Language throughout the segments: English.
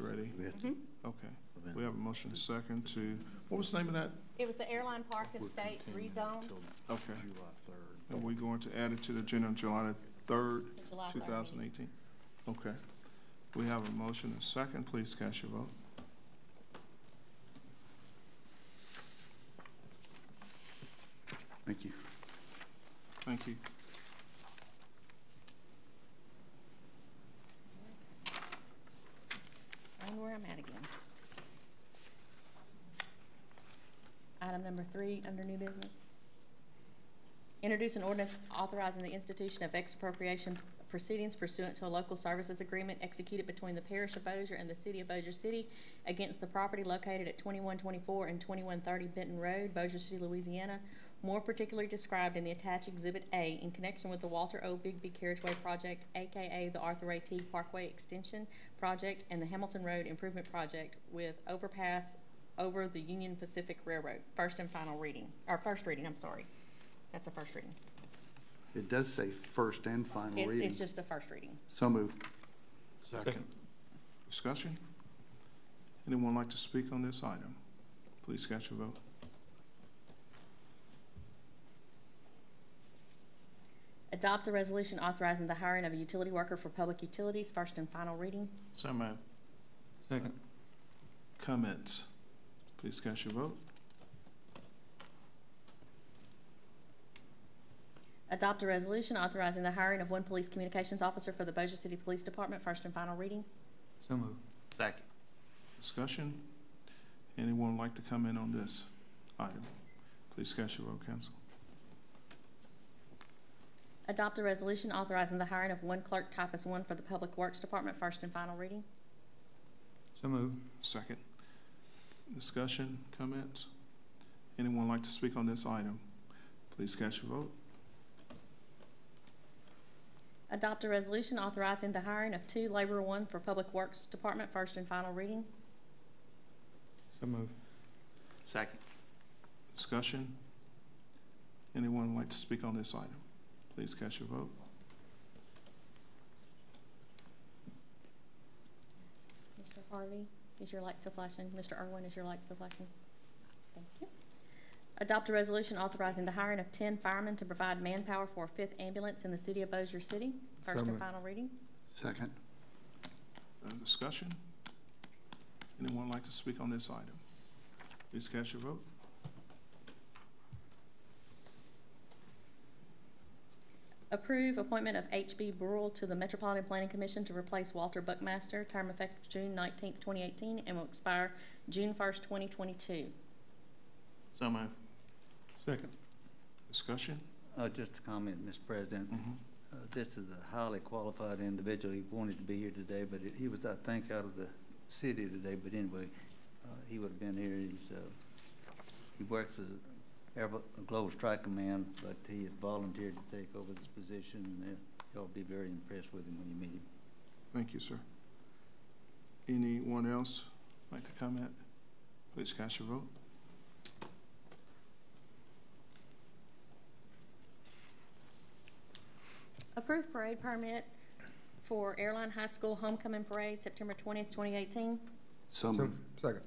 ready? We had to Okay. Mm-hmm. amend. We have a motion second to, what was the name of that? It was the airline park estates rezoned Okay. July third. And we're going to add it to the agenda on July the third, to July two 13. thousand eighteen? Okay. We have a motion and second. Please cast your vote. Thank you. Thank you. And where I'm at again. Item number three, under new business. Introduce an ordinance authorizing the institution of expropriation proceedings pursuant to a local services agreement executed between the parish of Bossier and the city of Bossier City against the property located at twenty-one twenty-four and twenty-one thirty Benton Road, Bossier City, Louisiana, more particularly described in the attached Exhibit A in connection with the Walter O. Bigby Carriageway Project, AKA the Arthur A. T. Parkway Extension Project and the Hamilton Road Improvement Project with overpass over the Union Pacific Railroad. First and final reading, or first reading, I'm sorry. That's a first reading. It does say first and final It's, reading. it's just a first reading. So moved. Second. Discussion? Anyone like to speak on this item? Please cast your vote. Adopt a resolution authorizing the hiring of a utility worker for public utilities, first and final reading. So moved. Second. Comments? Please cast your vote. Adopt a resolution authorizing the hiring of one police communications officer for the Bossier City Police Department, first and final reading. So moved. Second. Discussion? Anyone like to comment on this item? Please cast your vote, council. Adopt a resolution authorizing the hiring of one clerk typist one for the Public Works Department, first and final reading. So moved. Second. Discussion, comments? Anyone like to speak on this item? Please cast your vote. Adopt a resolution authorizing the hiring of two Labor One for Public Works Department, first and final reading. So moved. Second. Discussion? Anyone like to speak on this item? Please cast your vote. Mr. Harvey, is your light still flashing? Mr. Irwin, is your light still flashing? Thank you. Adopt a resolution authorizing the hiring of ten firemen to provide manpower for a fifth ambulance in the city of Bossier City, first and moved. final reading. Second. Uh, discussion? Anyone like to speak on this item? Please cast your vote. Approve appointment of H.B. Burrell to the Metropolitan Planning Commission to replace Walter Buckmaster, term effective June nineteenth, twenty eighteen, and will expire June first, twenty twenty-two. So moved. Second. Discussion? Uh, just a comment, Mr. President. Mm-hmm. Mhm. Uh, this is a highly qualified individual. He wanted to be here today, but he- he was, I think, out of the city today, but anyway, uh, he would have been here. He's, uh, he works for the Air Vo- Global Strike Command, but he has volunteered to take over this position, and uh, y'all be very impressed with him when you meet him. Thank you, sir. Anyone else like to comment? Please cast your vote. Approved parade permit for Airline High School Homecoming Parade, September twentieth, twenty eighteen. So moved. Second.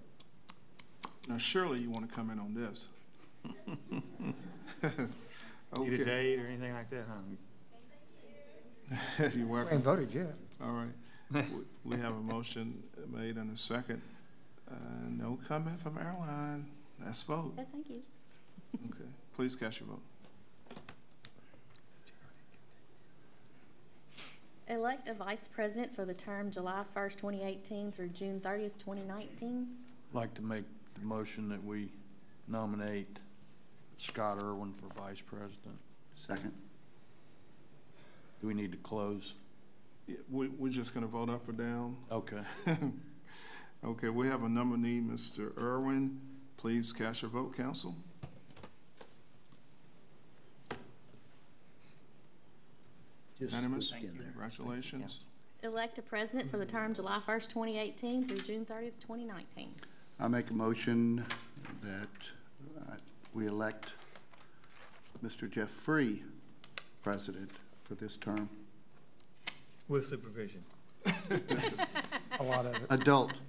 Now surely you want to comment on this. Need a Okay. date or anything like that, huh? You're welcome. voted yet. All right. We- We have a motion made and a second. Uh, No comment from airline. Let's vote. Said thank you. Okay. Please cast your vote. Elect a vice president for the term July first, twenty eighteen through June thirtieth, twenty nineteen. Like to make the motion that we nominate Scott Irwin for vice president. Second. Do we need to close? Yeah, We, we're just going to vote up or down. Okay. Okay, we have a nominee, Mr. Irwin. Please cast your vote, council. Just Unanimous? squeak in there. Congratulations. Elect a president for the term July first, twenty eighteen through June thirtieth, twenty nineteen. I make a motion that uh, we elect Mr. Jeff Free president for this term. With supervision. a lot of it. adult.